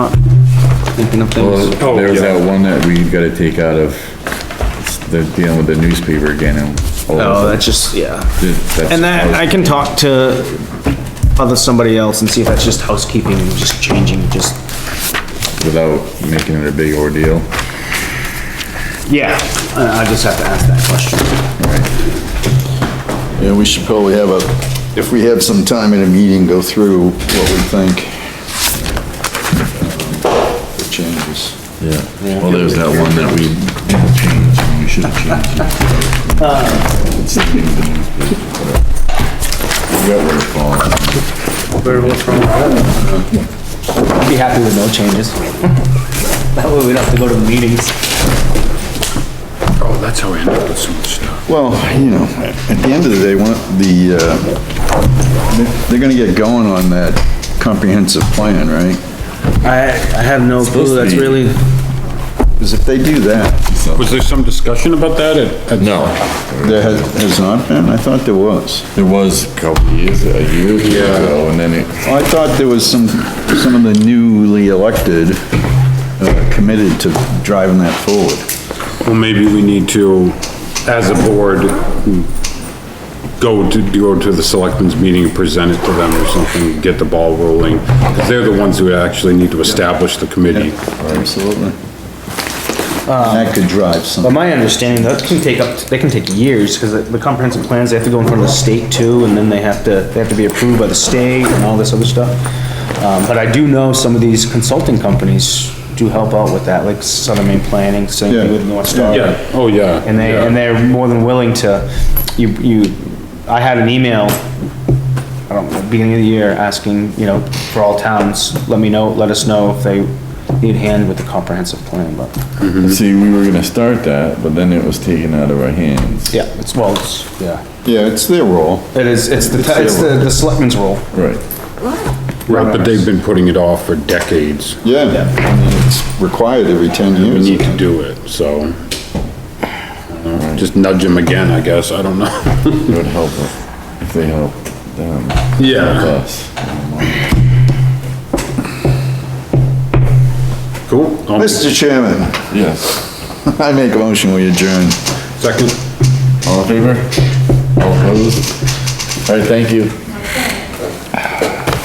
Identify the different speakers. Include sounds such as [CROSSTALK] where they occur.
Speaker 1: picking up
Speaker 2: Well,
Speaker 1: things.
Speaker 2: there was that one that we gotta take out of, it's- they're dealing with the newspaper again and.
Speaker 1: Oh, that's just, yeah.
Speaker 2: that's.
Speaker 1: And that, I can talk to other, somebody else and see if that's just housekeeping, and just changing, just,
Speaker 2: Without making it a big ordeal.
Speaker 1: yeah, I, I just have to ask that question.
Speaker 3: Yeah, we should probably have a, if we have some time in a meeting, go through what we think. um, The changes.
Speaker 2: Yeah. Well, there's that one that we changed, and we should have changed. it. It's the name of the newspaper, whatever. Forgot what it's called.
Speaker 1: I'd be happy with no changes. [LAUGHS] That way we don't have to go to the meetings.
Speaker 4: Oh, that's how I end up with so much stuff.
Speaker 3: Well, you know, at the end of the day, one, of the, uh, they're gonna get going on that comprehensive plan, right?
Speaker 1: I, I have no clue, that's really,
Speaker 3: Because if they do that,
Speaker 4: Was there some discussion about that at? at-
Speaker 2: No,
Speaker 3: there has has not been, I thought there was.
Speaker 2: there was a couple of years, a year ago, and then it,
Speaker 3: I thought there was some, some of the newly elected uh, committed to driving that forward.
Speaker 4: Well, maybe we need to, as a board, go to, go to the selectmen's meeting and present it to them or something, get the ball rolling. Because they're the ones who actually need to establish the committee.
Speaker 3: Absolutely. That could drive
Speaker 1: but
Speaker 3: some,
Speaker 1: my understanding, that can take up, they can take years, because the comprehensive plans, they have to go in front of the state too, and then they have to, they have to be approved by the state and all this other stuff. Um, but I do know some of these consulting companies do help out with that, like Southern Maine Planning, same thing with North Star.
Speaker 4: Yeah, oh, yeah.
Speaker 1: And they, and they're more than willing to, you, you, I had an email, I don't know, beginning of the year, asking, you know, for all towns, let me know, let us know if they need hand with the comprehensive plan, but,
Speaker 2: see, we were gonna start that, but then it was taken out of our hands.
Speaker 1: yeah, it's, well, it's, yeah.
Speaker 3: yeah, it's their role.
Speaker 1: It is, it's the,
Speaker 3: It's
Speaker 1: it's the, the selectmen's role.
Speaker 2: Right.
Speaker 4: Right, but they've been putting it off for decades.
Speaker 3: Yeah, I mean, it's required every 10
Speaker 4: We
Speaker 3: years.
Speaker 4: need to do it, so. I don't know, Just nudge them again, I guess, I don't know. [LAUGHS]
Speaker 2: It would help if, if they helped them. help
Speaker 4: Yeah,
Speaker 2: Us.
Speaker 4: cool. I'll make-
Speaker 3: Mr. Chairman, [LAUGHS]
Speaker 2: Yes.
Speaker 3: I make a motion, we adjourn.
Speaker 4: Second.
Speaker 2: All in favor? All opposed? All right, thank you.